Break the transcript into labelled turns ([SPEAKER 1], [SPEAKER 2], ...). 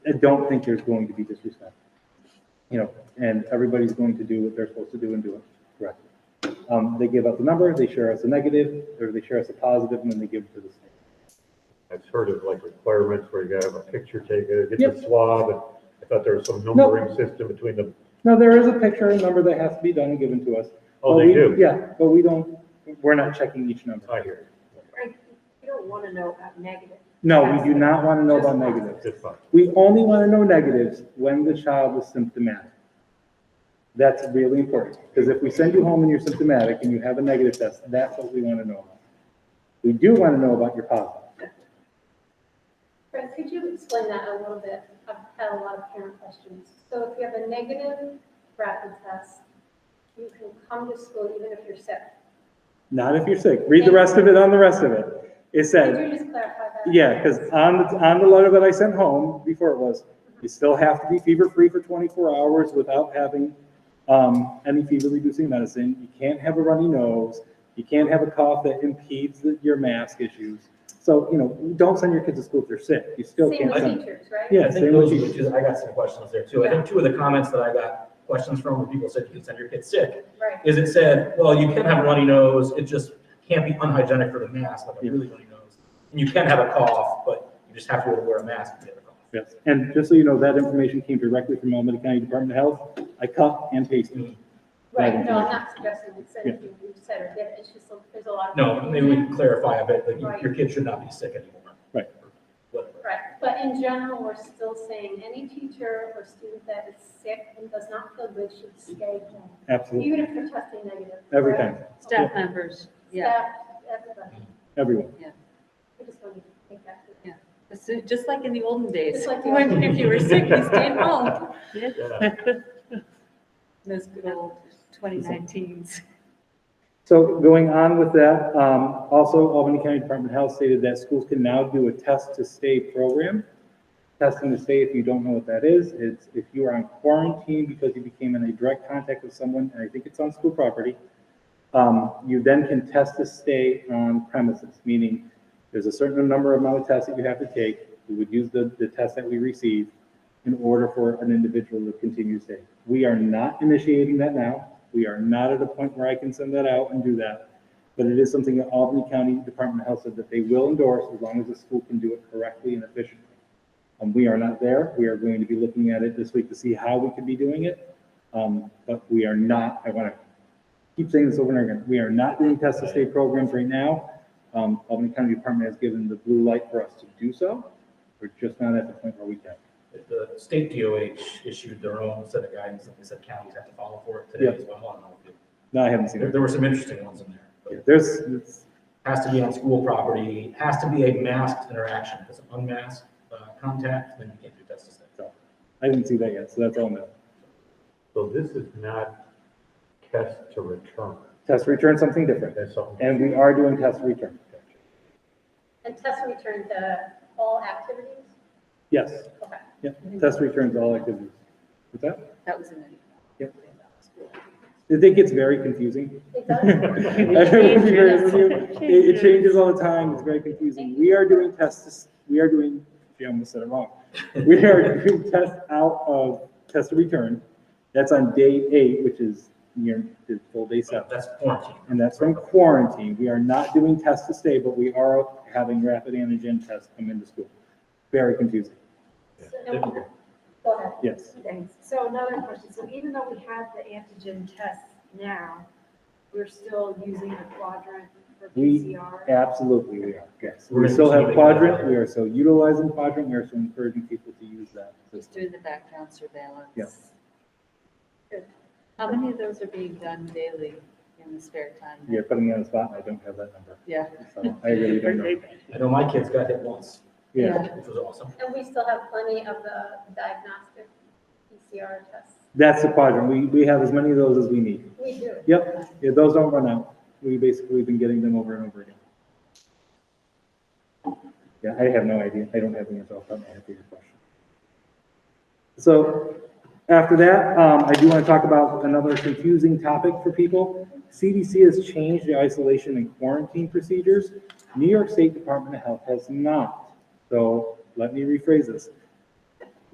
[SPEAKER 1] don't think there's going to be disrespect. You know, and everybody's going to do what they're supposed to do and do it correctly. Um, they give us a number, they share us a negative, or they share us a positive, and then they give it to the state.
[SPEAKER 2] I've heard of like requirements where you gotta have a picture taken, get
[SPEAKER 1] Yep.
[SPEAKER 2] the swab, and I thought there was some numbering system between them.
[SPEAKER 1] No, there is a picture and number that has to be done and given to us.
[SPEAKER 2] Oh,
[SPEAKER 1] But
[SPEAKER 2] they
[SPEAKER 1] we-
[SPEAKER 2] do?
[SPEAKER 1] Yeah, but we don't, we're not checking each number.
[SPEAKER 2] I hear
[SPEAKER 3] Right, you don't want to know about negative.
[SPEAKER 1] No, we do not want to know about negatives.
[SPEAKER 2] you. It's fine.
[SPEAKER 1] We only want to know negatives when the child is symptomatic. That's really important, because if we send you home and you're symptomatic and you have a negative test, that's what we want to know about. We do want to know about your positive.
[SPEAKER 4] Fred, could you explain that a little bit? I've had a lot of parent questions. So if you have a negative rapid test, you can come to school even if you're sick.
[SPEAKER 1] Not if you're sick. Read the rest of it on the rest of it. It
[SPEAKER 4] Could
[SPEAKER 1] said,
[SPEAKER 4] you just clarify that?
[SPEAKER 1] yeah, because on, the on the letter that I sent home, before it was, you still have to be fever-free for 24 hours without having um, any fever-reducing medicine. You can't have a runny nose. You can't have a cough that impedes the- your mask issues. So, you know, don't send your kids to school if they're sick. You still
[SPEAKER 4] Same
[SPEAKER 1] can't
[SPEAKER 4] with
[SPEAKER 1] send them.
[SPEAKER 4] teachers, right?
[SPEAKER 1] Yeah,
[SPEAKER 5] I think
[SPEAKER 1] same with
[SPEAKER 5] those were
[SPEAKER 1] teachers.
[SPEAKER 5] the two, I got some questions there too. I think two of the comments that I got questions from were people said you can send your kids sick.
[SPEAKER 4] Right.
[SPEAKER 5] Is it said, well, you can have a runny nose, it just can't be unhygienic for the mask, like
[SPEAKER 1] Yeah.
[SPEAKER 5] a really runny nose. And you can have a cough, but you just have to wear a mask to get a cough.
[SPEAKER 1] Yes, and just so you know, that information came directly from Alameda County Department of Health. I cut and pasted. it.
[SPEAKER 4] Right, no, I'm not suggesting we send you, we said, or get, it's just, there's a lot of.
[SPEAKER 5] No, maybe we can clarify a bit, like you-
[SPEAKER 4] Right.
[SPEAKER 5] your kid should not be sick anymore.
[SPEAKER 1] Right.
[SPEAKER 5] Whatever.
[SPEAKER 4] Right, but in general, we're still saying any teacher or student that is sick and does not feel good should stay home.
[SPEAKER 1] Absolutely,
[SPEAKER 4] Even if they're testing negative.
[SPEAKER 1] Every
[SPEAKER 4] correct?
[SPEAKER 1] time.
[SPEAKER 6] Staff members, yeah.
[SPEAKER 4] Staff, everybody,
[SPEAKER 1] everyone.
[SPEAKER 4] we just want to make that clear.
[SPEAKER 6] It's Just like in the olden days.
[SPEAKER 4] Just like the
[SPEAKER 6] When,
[SPEAKER 4] olden
[SPEAKER 6] if you were sick, you stayed home.
[SPEAKER 2] Yeah.
[SPEAKER 6] Those good old 2019s.
[SPEAKER 1] So going on with that, um, also Albany County Department of Health stated that schools can now do a test to stay program. Testing to stay, if you don't know what that is, it's if you are on quarantine because you became in a direct contact with someone, and I think it's on school property, um, you then can test to stay on premises, meaning there's a certain number of amount of tests that you have to take. We would use the, the test that we receive in order for an individual to continue staying. We are not initiating that now. We are not at a point where I can send that out and do that. But it is something that Albany County Department of Health said that they will endorse as long as the school can do it correctly and efficiently. And Um, we are not there. We are going to be looking at it this week to see how we could be doing it. Um, but we are not, I want to keep saying this over and over again, we are not doing test to stay programs right now. Um, Albany County Department has given the blue light for us to do so. We're just not at the point where we can.
[SPEAKER 5] The state DOH issued their own set of guidance, and they said counties have to follow for it today as well. I don't know if you-
[SPEAKER 1] No, I haven't seen
[SPEAKER 5] There,
[SPEAKER 1] it.
[SPEAKER 5] there were some interesting ones in there. but-
[SPEAKER 1] There's, it's-
[SPEAKER 5] has to be on school property, has to be a masked interaction, because unmasked uh, contact, then you can't do test to stay.
[SPEAKER 1] I didn't see that yet, so that's all new.
[SPEAKER 2] So this is not test to return.
[SPEAKER 1] Test return, something different.
[SPEAKER 2] That's something.
[SPEAKER 1] And we are doing test return.
[SPEAKER 4] And test return to all activities?
[SPEAKER 1] Yes,
[SPEAKER 4] Okay.
[SPEAKER 1] test returns all activities. What's that?
[SPEAKER 6] That was in the.
[SPEAKER 1] Yep. It it gets very confusing.
[SPEAKER 4] It
[SPEAKER 1] I
[SPEAKER 4] does,
[SPEAKER 1] will be very honest with you. It it changes all the time, it's very confusing. We are doing tests, we are doing, gee, I almost said it wrong. We are doing test out of test to return. That's on day eight, which is near the full day seven.
[SPEAKER 5] So that's quarantine.
[SPEAKER 1] and that's from quarantine. We are not doing test to stay, but we are having rapid antigen tests come into school. Very confusing,
[SPEAKER 4] So- go ahead.
[SPEAKER 1] yes.
[SPEAKER 3] Thanks. So another question, so even though we have the antigen tests now, we're still using the quadrant for
[SPEAKER 1] We-
[SPEAKER 3] PCR?
[SPEAKER 1] Absolutely, we are, yes.
[SPEAKER 5] We're
[SPEAKER 1] We still have
[SPEAKER 5] continuing
[SPEAKER 1] quadrant,
[SPEAKER 5] that.
[SPEAKER 1] we are still utilizing quadrant, we are still encouraging people to use that.
[SPEAKER 6] He's doing the background surveillance.
[SPEAKER 1] Yes.
[SPEAKER 6] Good. How many of those are being done daily in the spare time?
[SPEAKER 1] You're putting me on the spot, and I don't have that number,
[SPEAKER 6] Yeah.
[SPEAKER 1] so I really don't know.
[SPEAKER 5] I know my kids got hit once,
[SPEAKER 1] Yeah,
[SPEAKER 5] which was awesome.
[SPEAKER 4] And we still have plenty of the diagnostic PCR tests.
[SPEAKER 1] that's the quadrant. We, we have as many of those as we need.
[SPEAKER 4] We do.
[SPEAKER 1] Yep, yeah, those don't run out. We basically have been getting them over and over again. Yeah, I have no idea. I don't have the answer off the top of my head to your question. So after that, um, I do want to talk about another confusing topic for people. CDC has changed the isolation and quarantine procedures. New York State Department of Health has not. So let me rephrase this.